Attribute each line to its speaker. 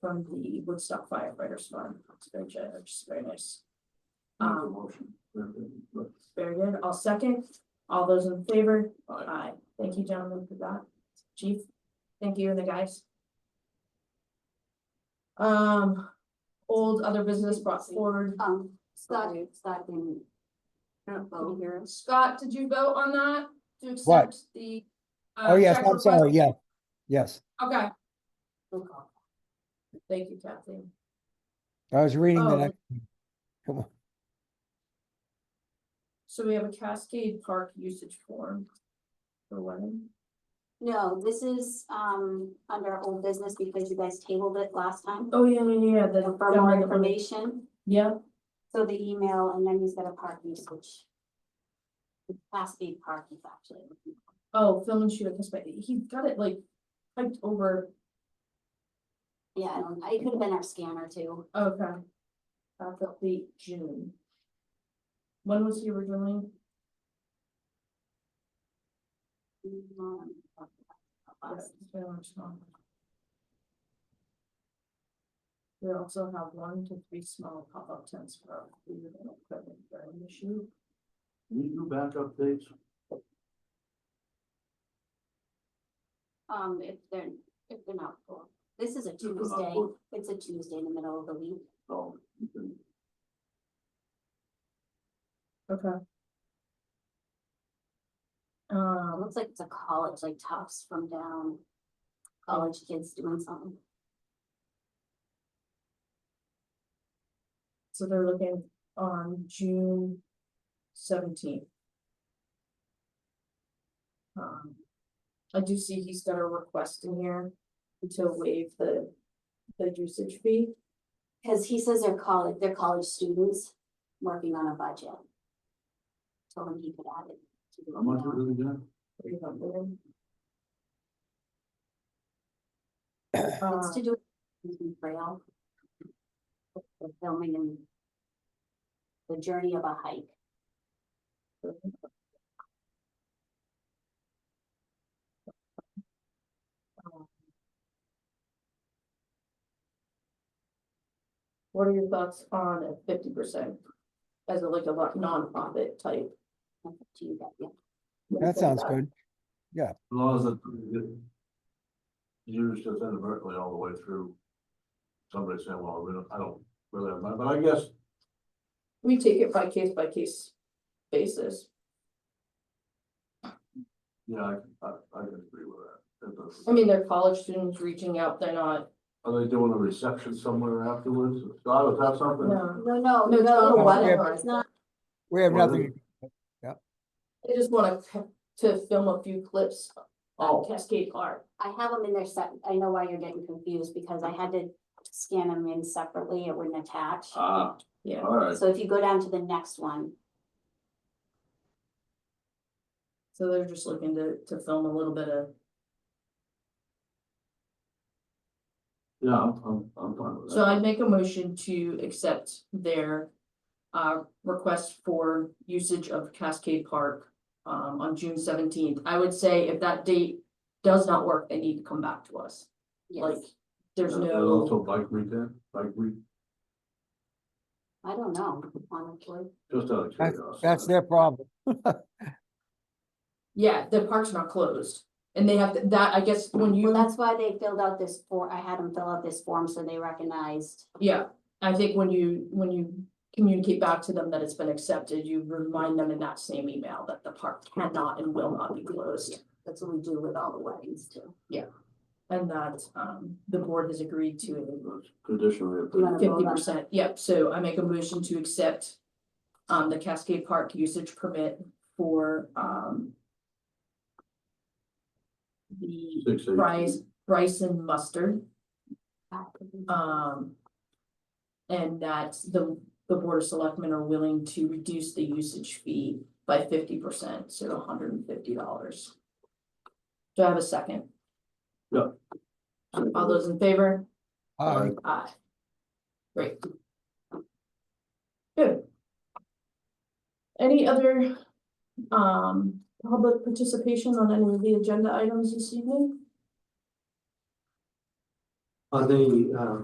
Speaker 1: from the Woodstock firefighters fund, it's very generous, it's very nice.
Speaker 2: Make a
Speaker 1: Um,
Speaker 2: motion. Aye.
Speaker 1: very good, I'll second, all those in favor, aye, thank you gentlemen for that, chief, thank you and the guys. Um, old other business brought forward,
Speaker 3: Um, Scott, Scott didn't. I
Speaker 1: Oh,
Speaker 3: don't know, here.
Speaker 1: Scott, did you vote on that? To
Speaker 4: What?
Speaker 1: accept the. uh,
Speaker 4: Oh, yes,
Speaker 1: check
Speaker 4: I'm
Speaker 1: request?
Speaker 4: sorry, yeah, yes.
Speaker 1: Okay,
Speaker 3: Roll call.
Speaker 1: thank you Kathleen,
Speaker 4: I was reading
Speaker 1: Oh.
Speaker 4: the next. one. Come on,
Speaker 1: so we have a Cascade Park usage form. For when,
Speaker 3: No, this is, um, under old business because you guys tabled it last time.
Speaker 1: oh, yeah, yeah, yeah, the.
Speaker 3: For more information,
Speaker 1: Yeah,
Speaker 3: so the email and then he's got a park usage. Class B park is actually.
Speaker 1: oh, film and shoot, because he got it like typed over,
Speaker 3: Yeah, I don't- it could have been our scanner too.
Speaker 1: okay. Back up the June. When was he originally?
Speaker 3: Um,
Speaker 1: We also have one to three small pop-up tents for our food and equipment during the shoot.
Speaker 2: We do backup dates,
Speaker 3: Um, if they're, if they're not full. This is a
Speaker 2: they're not
Speaker 3: Tuesday,
Speaker 2: full.
Speaker 3: it's a Tuesday in the middle of the week.
Speaker 2: so you can-
Speaker 1: Okay.
Speaker 3: It
Speaker 1: Um,
Speaker 3: looks like it's a college, like Tufts from down. College kids doing something.
Speaker 1: so they're looking on June seventeenth. Um, I do see he's got a request in here to waive the, the usage fee.
Speaker 3: Cause he says they're college, they're college students working on a budget. Told him he could add it. to the
Speaker 2: how much
Speaker 3: email.
Speaker 2: is it again?
Speaker 1: Three hundred. Uh,
Speaker 3: It's to do. with Susan Trail. The filming and. The journey of a hike.
Speaker 1: What are your thoughts on a fifty percent as a like a lot- nonprofit type?
Speaker 3: That's up To you guys, yeah.
Speaker 4: That sounds good.
Speaker 2: As long as it. it- Yours just inadvertently all the way through. Somebody saying, well, we don't- I don't really have money, but I guess
Speaker 1: We take it by case by case basis.
Speaker 2: Yeah, I, I, I can agree with that. It does.
Speaker 1: I mean, they're college students reaching out, they're not,
Speaker 2: Are they doing a reception somewhere afterwards? Scott, is that something?
Speaker 1: no,
Speaker 3: No, no,
Speaker 1: No, it's
Speaker 3: no,
Speaker 1: not.
Speaker 3: whatever, it's not,
Speaker 4: We have
Speaker 2: Well,
Speaker 4: nothing,
Speaker 1: they just wanna c- to film a few clips on
Speaker 2: Oh.
Speaker 1: Cascade Park.
Speaker 3: I have them in there set, I know why you're getting confused, because I had to scan them in separately, it wouldn't attach.
Speaker 2: Ah,
Speaker 1: Yeah,
Speaker 2: all right.
Speaker 3: So if you go down to the next one,
Speaker 1: so they're just looking to to film a little bit of,
Speaker 2: Yeah, I'm, I'm, I'm fine with
Speaker 1: so
Speaker 2: that.
Speaker 1: I'd make a motion to accept their. Uh, request for usage of Cascade Park um on June seventeenth. I would say if that date does not work, they need to come back to us. Like,
Speaker 3: yes,
Speaker 1: there's
Speaker 2: And- and
Speaker 1: no,
Speaker 2: Also bike weekend, bike week,
Speaker 3: I don't know, honestly.
Speaker 2: just out of
Speaker 4: That's-
Speaker 2: curiosity.
Speaker 4: that's their problem.
Speaker 1: yeah, the park's not closed. And they have to- that, I guess, when you.
Speaker 3: Well, that's why they filled out this form, I had them fill out this form so they recognized,
Speaker 1: Yeah, I think when you, when you communicate back to them that it's been accepted, you remind them in that same email that the park cannot and will not be closed.
Speaker 3: that's what we do with all the weddings too.
Speaker 1: And that, um, the board has agreed to
Speaker 2: That's Traditionally. a
Speaker 3: You wanna
Speaker 2: pretty-
Speaker 3: vote
Speaker 1: fifty
Speaker 3: on it?
Speaker 1: percent, yep, so I make a motion to accept. Um, the Cascade Park usage permit for, um. The
Speaker 2: six, eight,
Speaker 1: Bryce, Bryson Mustard.
Speaker 3: Uh,
Speaker 1: Um. And that the, the board of selectmen are willing to reduce the usage fee by fifty percent, so hundred and fifty dollars. Do I have a second?
Speaker 2: Yeah.
Speaker 1: All those in favor?
Speaker 4: Uh,
Speaker 1: Aye. Great. Good. Any other, um, public participation on any of the agenda items this evening?
Speaker 2: uh,
Speaker 5: On the, um,